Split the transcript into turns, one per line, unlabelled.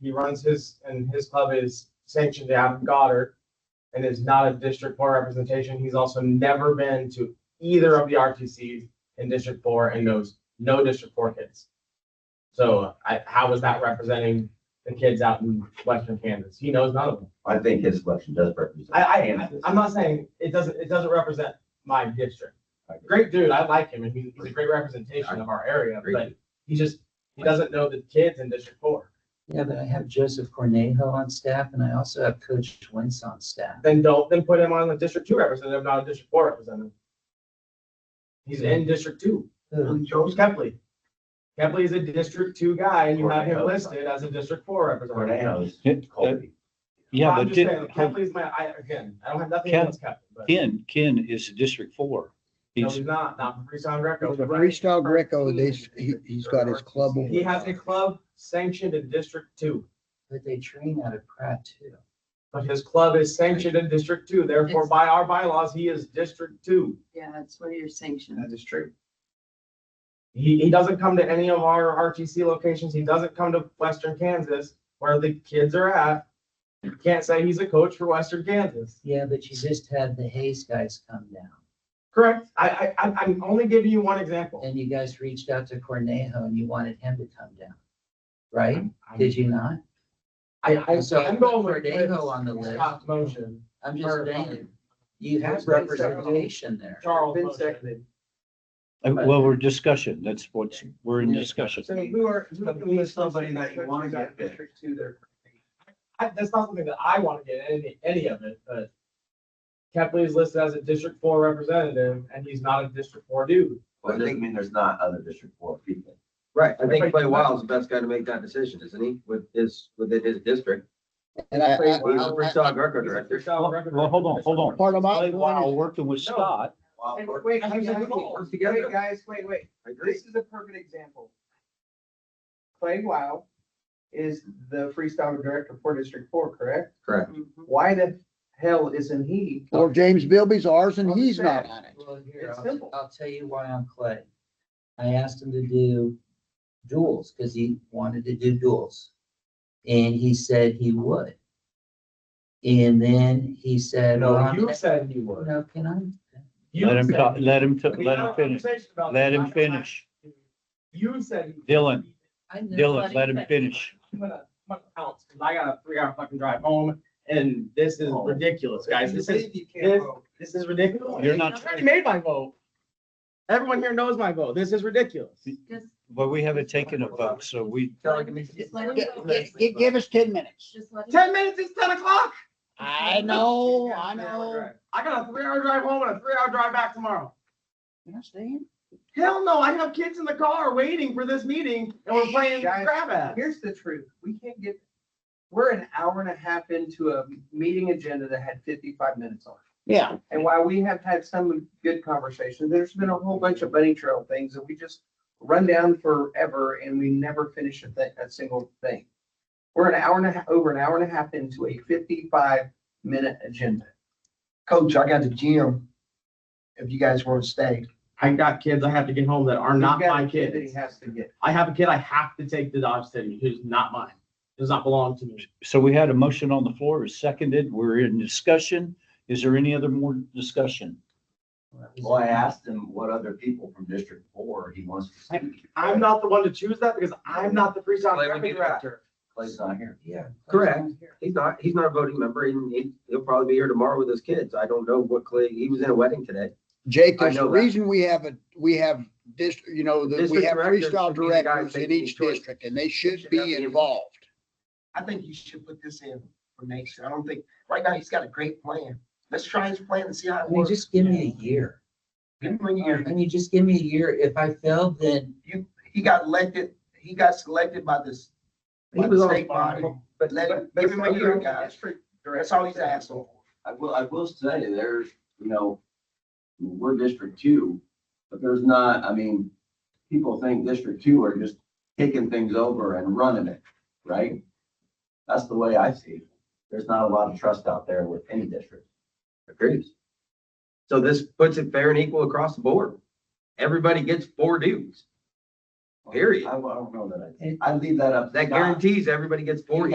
he runs his, and his club is sanctioned out of Goddard and is not a District Four representation. He's also never been to either of the RTCs in District Four and knows no District Four kids. So I, how is that representing the kids out in Western Kansas? He knows none of them.
I think his selection does represent.
I, I, I-
Kansas.
I'm not saying it doesn't, it doesn't represent my district. Great dude, I like him, and he- he's a great representation of our area,
Great
but he just, he doesn't know the kids in District Four.
Yeah, but I have Joseph Cornejo on staff and I also have Coach Wentz on staff.
Then don't, then put him on the District Two representative, not a District Four representative. He's in District Two,
Who-
George Kepley. Kepley is a District Two guy, and you have him listed as a District Four representative.
Tornadoes,
It- that-
Colby.
Yeah,
I'm
but
just
di-
saying, Kepley's my, I, again, I don't have nothing
Ken-
against Kepley, but
Ken, Ken is District Four.
no,
He's,
he's not, not from Freestyle Greco. but-
Freestyle Greco, they, he, he's got his club.
He has a club sanctioned in District Two,
But they train out of Pratt too.
but his club is sanctioned in District Two, therefore by our bylaws, he is District Two.
Yeah, that's what you're sanctioned.
is true.
He, he doesn't come to any of our RTC locations, he doesn't come to Western Kansas where the kids are at. You can't say he's a coach for Western Kansas.
Yeah, but you just had the Hayes guys come down
Correct? I, I, I'm- I'm only giving you one example.
and you guys reached out to Cornejo and you wanted him to come down. Right? Did you not?
I, I,
So
I'm going with.
Cordego on the list.
Scott's motion.
I'm
Or-
just saying, you have
Who's represented?
representation there.
Charles
Been
motion.
seconded.
uh, well, we're discussion. That's what's, we're in discussion.
So who are, who
But
who
who's
is
somebody that you wanna get there?
District two there.
I, that's not something that I want to get any, any of it, but Kepley is listed as a District Four representative, and he's not a District Four dude.
Well, it doesn't mean there's not other District Four people.
Right,
I think Clay Wild's the best guy to make that decision, isn't he? With his, within his district.
And I,
He's
I,
a Freestyle Greco director.
Well, well, hold on, hold on.
part of my
Clay Wow,
point
working with Scott,
Wild worked-
Wait,
I
guys,
think that's what
worked
wait,
together.
wait, guys, wait, wait.
I agree.
This is a perfect example. Clay Wow is the freestyle director for District Four, correct?
Correct.
Why the hell isn't he?
is, or James Bilby's ours and he's not on it.
Well, here,
It's
I'll,
simple.
I'll tell you why on Clay. I asked him to do duels because he wanted to do duels. And he said he would. And then he said, well,
No,
I'm-
you said he would.
no, can I?
You
let him,
said-
talk- let him, t-
We
let
had
him
a
finish,
conversation about
let
this.
him finish.
You said. he-
Dylan.
I know
Dylan,
what
let him
he-
finish.
I'm gonna, I'm gonna pounce, because I got a three-hour fucking drive home, and this is
Oh.
ridiculous, guys. This is,
You
this-
can't vote.
this is ridiculous.
You're not-
I already made my vote. Everyone here knows my vote. This is ridiculous.
Just,
But we haven't taken a vote, so we,
just let him
Gi-
go.
gi- gi- give us ten minutes.
Just let him.
Ten minutes, it's ten o'clock.
I know, I know.
I got a three-hour drive home and a three-hour drive back tomorrow.
You understand?
Hell no, I have kids in the car waiting for this meeting and we're playing
Guys,
grab ass.
Here's the truth, we can't get, we're an hour and a half into a meeting agenda that had fifty-five minutes on it.
Yeah,
And while we have had some good conversations, there's been a whole bunch of bunny trail things that we just run down forever and we never finish a thing, a single thing. We're an hour and a half, over an hour and a half into a fifty-five minute agenda.
Coach, I got the gym. If you guys want to stay,
I got kids I have to get home that are not
We've got
my
a kid that he
kids.
Has to get.
I have a kid I have to take to Dodge City who's not mine, does not belong to me.
so we had a motion on the floor, it's seconded, we're in discussion. Is there any other more discussion?
Well, I asked him what other people from District Four he wants to see.
I'm not the one to choose that because I'm not the freestyle
Why would
graphic
you do that?
director.
Clay's not here.
Yeah.
Correct.
he's not, he's not a voting member, and he, he'll probably be here tomorrow with his kids. I don't know what Clay, he was in a wedding today.
Jake,
I
there's a
know that.
reason we have a, we have this, you know, that we
District
have
directors
freestyle
should be the guys
directors in
making
each
choices.
district and they should
Should not
be
be-
involved.
I think you should put this in for next year. I don't think, right now, he's got a great plan. Let's try his plan and see how
I
it
mean,
works.
just give me a year.
Give him a year.
I mean, just give me a year. If I fail, then
He got elected, he got selected by this, by the state body, but let him,
But-
give him a
but-
year, guys. That's all he's asking for.
I will, I will say there's, you know, we're District Two, but there's not, I mean, people think District Two are just taking things over and running it, right? That's the way I see it. There's not a lot of trust out there with any district.
Agrees. So this puts it fair and equal across the board. Everybody gets four dues. Period.
I I don't know that I, I leave that up. to
That
Scott.
guarantees everybody gets four.